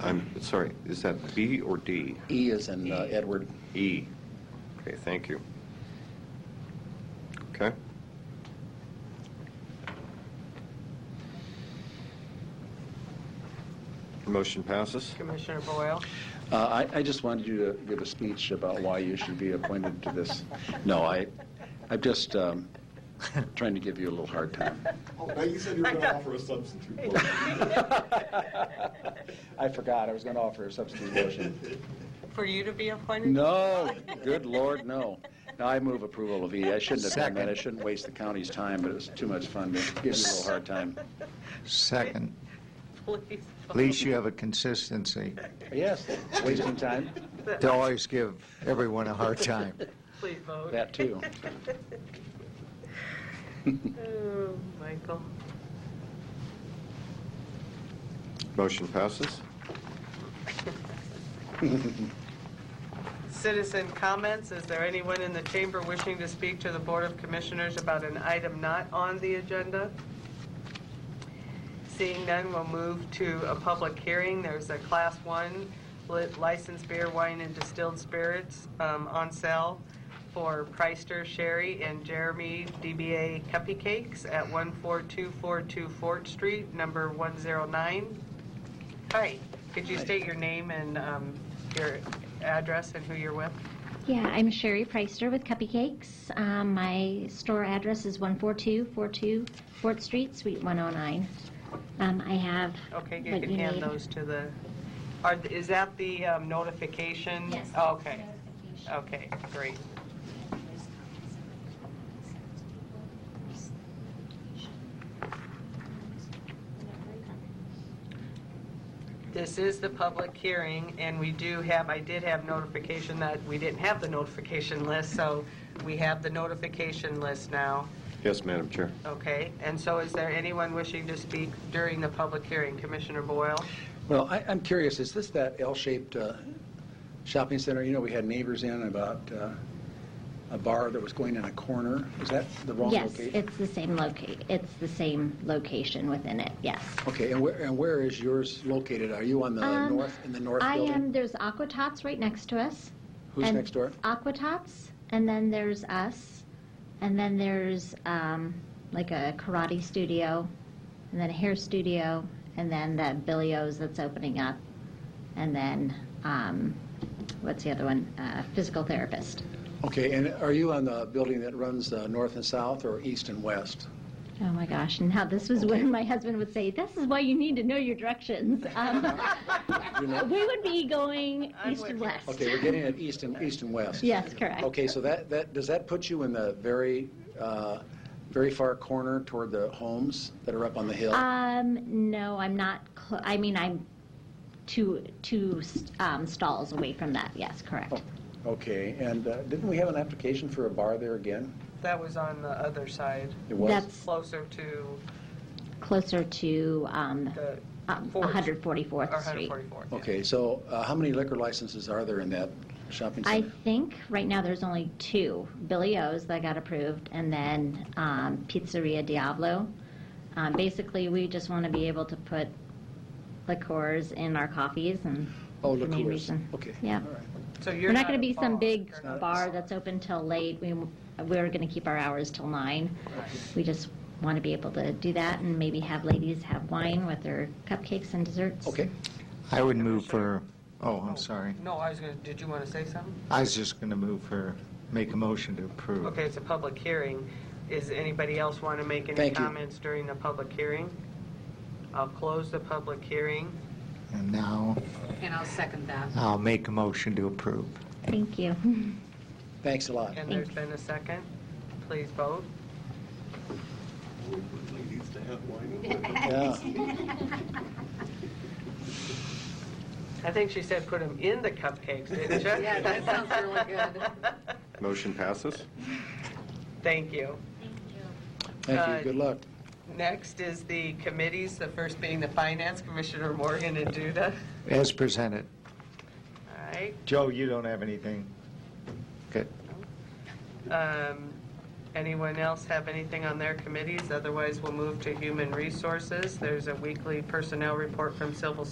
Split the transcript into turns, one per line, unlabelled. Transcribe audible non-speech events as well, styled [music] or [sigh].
I'm sorry, is that B or D?
E is in uh, Edward.
E. Okay, thank you. Okay. Motion passes.
Commissioner Boyle?
Uh, I I just wanted you to give a speech about why you should be appointed to this. No, I, I'm just um, trying to give you a little hard time.
Oh, now you said you were going to offer a substitute. motion.
I forgot, I was going to offer a
[laughs]
substitute motion.
For you to be appointed?
No, good Lord, no. No, I move approval of E. I shouldn't have done that. I shouldn't waste the county's time, but it was too much fun to give you a little hard time.
Second,
Please.
at least you have a consistency
Yes, wasting time,
to always give everyone a hard time.
Please vote.
that too.
[laughs] Oh, Michael.
Motion passes.
Citizen comments, is there anyone in the chamber wishing to speak to the Board of Commissioners about an item not on the agenda? Seeing none, we'll move to a public hearing. There's a Class 1 li- licensed beer, wine, and distilled spirits um, on sale for Priester Sherry and Jeremy DBA Cuppy Cakes at 14242 Fort Street, number 109. Hi, could you state your name and um, your address and who you're with?
Yeah, I'm Sherry Preister with Cuppy Cakes. Um, my store address is 14242 Fort Street, Suite 109. Um, I have
Okay, you
what
can
you
hand
need.
those to the, are, is that the um, notification?
Yes.
Oh, Okay, okay, great. This is the public hearing, and we do have, I did have notification that we didn't have the notification list, so we have the notification list now,
Yes, Madam Chair.
okay? And so is there anyone wishing to speak during the public hearing? Commissioner Boyle?
Well, I, I'm curious, is this that L-shaped uh, shopping center? You know, we had neighbors in about uh, a bar that was going in a corner. Is that the wrong
Yes,
location?
it's the same locate, it's the same location within it, yes.
Okay, and where, and where is yours located? Are you on the
Um,
north, in the north
I
building?
am, there's Aqua Tots right next to us.
Who's
and
next door?
Aqua Tots, and then there's us, and then there's um, like a karate studio, and then a hair studio, and then that Billy O's that's opening up, and then um, what's the other one? Uh, physical therapist.
Okay, and are you on the building that runs uh, north and south or east and west?
Oh my gosh! And how this was when my husband would say, "This is why you need to know your directions." [laughs] Um,
You know?
we would be going
I'm
east and
with you.
west.
Okay, we're getting at east and, east and west.
Yes, correct.
Okay, so that, that, does that put you in the very, uh, very far corner toward the homes that are up on the hill?
Um, no, I'm not, cl- I mean, I'm two, two um, stalls away from that, yes, correct.
Oh.
Okay, and uh, didn't we have an application for a bar there again?
That was on the other side,
It was?
That's
closer to
closer to um,
the,
uh,
Fourth. or
144th Street.
144th. yeah.
Okay, so uh, how many liquor licenses are there in that shopping
I
center?
think right now there's only two, Billy O's that got approved, and then um, Pizzeria Diablo. Um, Basically, we just want to be able to put liqueurs in our coffees and,
Oh,
for any
liqueurs.
reason.
Okay.
yeah.
All right.
So you're
We're not going
a
to be some
bar.
big
You're not a
bar that's open till late. We, we're going to keep our hours till nine. We just want to be able to do that and maybe have ladies have wine with their cupcakes and desserts.
Okay,
I would move for, oh, I'm sorry.
No, I was going to, did you want to say something?
I was just going to move for, make a motion to approve.
Okay, it's a public hearing. Is anybody else want to make any
Thank you.
comments during the public hearing? I'll close the public hearing.
And now
And I'll second that.
I'll make a motion to approve.
Thank you. [laughs]
thanks a
[laughs]
lot.
And there's been a second. Please vote.
Ladies to have wine.
Yeah.
I think she said put them in the cupcakes, didn't you?
[laughs] Yeah, that sounds really good.
Motion passes.
[laughs] Thank you.
Thank
Uh,
you, good luck.
Next is the committees, the first being the Finance Commissioner Morgan and Duda.
As presented.
All right.
Joe, you don't have anything? Good.
Um, Anyone else have anything on their committees? Otherwise, we'll move to Human Resources. There's a weekly personnel report from Civil